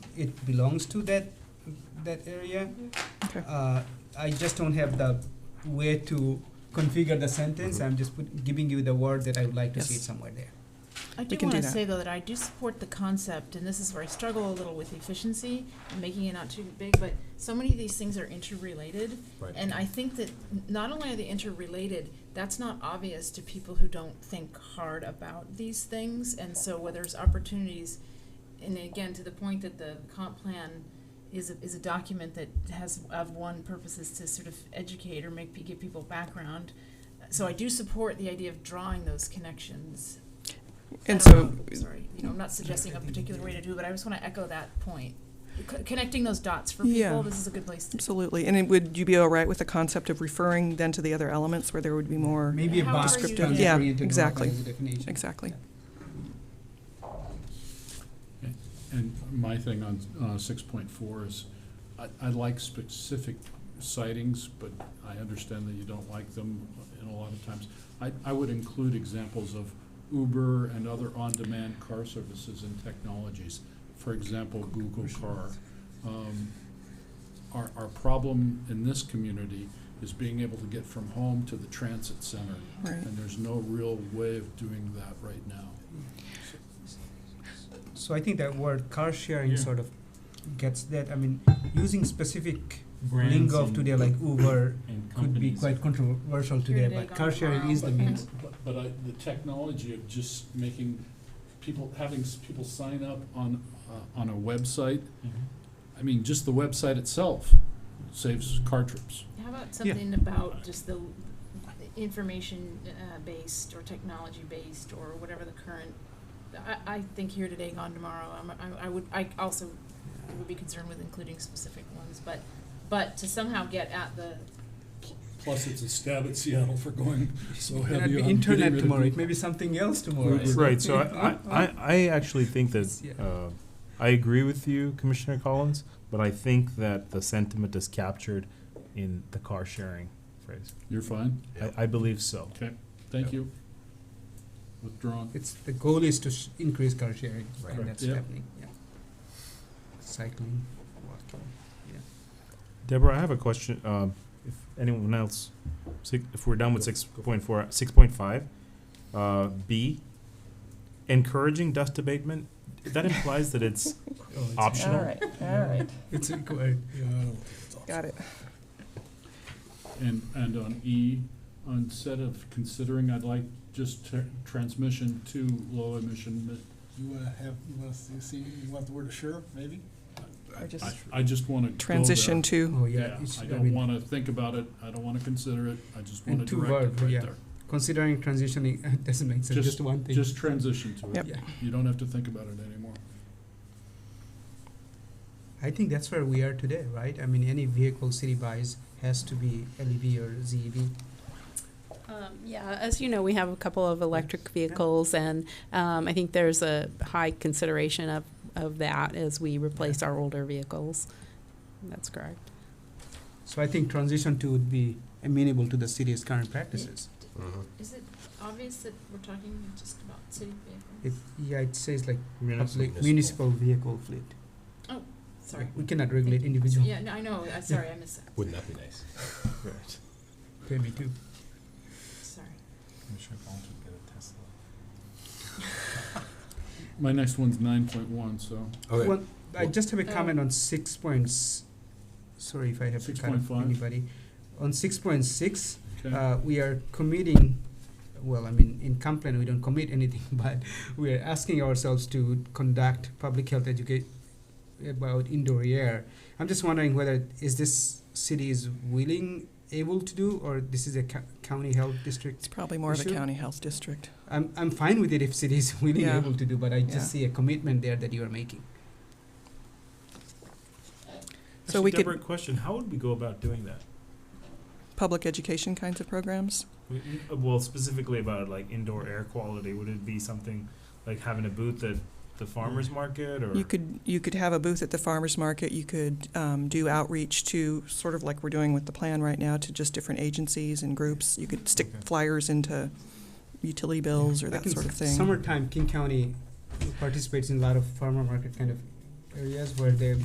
it belongs to that, that area. Okay. Uh, I just don't have the way to configure the sentence. I'm just put, giving you the word that I would like to see it Yes. somewhere there. I do can want do to that. say though that I do support the concept, and this is where I struggle a little with efficiency and making it not too big. But so many of these things are interrelated, Right. and I think that n- not only are they interrelated, that's not obvious to people who don't think hard about these things. And so where there's opportunities, and again to the point that the comp plan is a, is a document that has of one purpose is to sort of educate or make pe- give people background. So I do support the idea of drawing those connections. I And don't so, know, Sorry, you know, Oh, I'm not suggesting a particular way to do it, but I just wanna echo that point. C- Connecting those dots for Yeah. people, this is a good place to. absolutely. And it- would you be all right with the concept of referring then to the other elements where there would be more? Maybe a However box you descriptive do it. Yeah, oriented rather exactly. as a definition. Exactly. And my thing on, uh, six point four is, I, I like specific sightings, but I understand that you don't like them in a lot of times. I, I would include examples of Uber and other on-demand car services and technologies. For example, Google Car. Um, our, our problem in this community is being able to get from home to the transit center. Right. And there's no real way of doing that right now. So I think that word car sharing Yeah. sort of gets that. I mean, using specific Brands lingo of and- today like Uber and could be companies. quite controversial Here today, today, but gone car sharing is the tomorrow. means. But- But I, the technology of just making people, having s- people sign up on, uh, on a website, Mhm. I mean, just the website itself saves car trips. How about something about just the information-based or technology-based or whatever the current, I, I think here today, gone tomorrow, I'm, I, I would, I also would be concerned with including specific ones, but, but to somehow get at the, Plus, it's a stab at Seattle for going so May not be heavy on internet getting rid tomorrow. It of. may be something else tomorrow. Right. Right, so I, I, I- I actually think Yeah. that, uh, I agree with you, Commissioner Collins, but I think that the sentiment is captured in the car sharing phrase. You're fine, I, I believe so. okay, thank you. Withdrawn. It's the goal is to sh- increase car sharing, Right. and that's Yeah. happening. Yeah. Cycling, walking. Deborah, I have a question. Um, if anyone else, si- if we're done with six point four, six point five, uh, B, encouraging dust abatement, that implies that it's Oh, it's Optional. All right, all right. It's uh, required. Got it. And, and on E, instead of considering, I'd like just tr- transmission to low emission, mi- You wanna have, you wanna see, see, you want the word assure, maybe? Or just I, I just wanna go there. transition to, Oh yeah. Yeah, it's, I I don't mean, wanna think about it, I don't wanna consider it, I just And wanna two direct verbs, it right yeah. there. considering transitioning it doesn't make sense. Just, Just- one thing. Just transition to Yep. it, yeah. you don't have to think about it anymore. I think that's where we are today, right? I mean, any vehicle city buys has to be LEV or E ZEV. Um, Yeah, as you know, we have a couple of electric vehicles, and um, I think there's a high consideration of, of that as we replace our older vehicles. That's correct. So I think transition to would be amenable to the city's current practices. is it obvious that we're talking just about city It, vehicles? yeah, it says like public Municipal. municipal vehicle fleet. Sorry. We cannot regulate individual. Yeah, no, I know, I, sorry, I missed that, Wouldn't that be nice? Right. Yeah, me too. sorry. Commissioner Collins would get a Tesla. My next one's nine point one, so Okay, Well, I just have a Oh. comment on six points. Sorry if I have to cut off 6.5. anybody. On six point six, okay. uh, we are committing, well, I mean, in complaint, we don't commit anything, but we are asking ourselves to conduct public health educate about indoor air. I'm just wondering whether is this city is willing, able to do, or this is a co- county health district? it's probably more of a Issue? county health district. I'm, I'm fine with it if city is willing, Yeah. able to do, but I Yeah. just see a commitment there that you are making. So we could- Deborah, question, how would we go about doing that? Public education kinds of programs? We- n- uh, Well, specifically about like indoor air quality, would it be something like having a booth at the farmer's market or? Mm. You could, you could have a booth at the farmer's market, you could um, do outreach to, sort of like we're doing with the plan right now, to just different agencies and groups. You could stick Okay. flyers into utility bills or Like that in sort of s- thing. Summertime, King County participates in a lot of farmer market kind of areas where they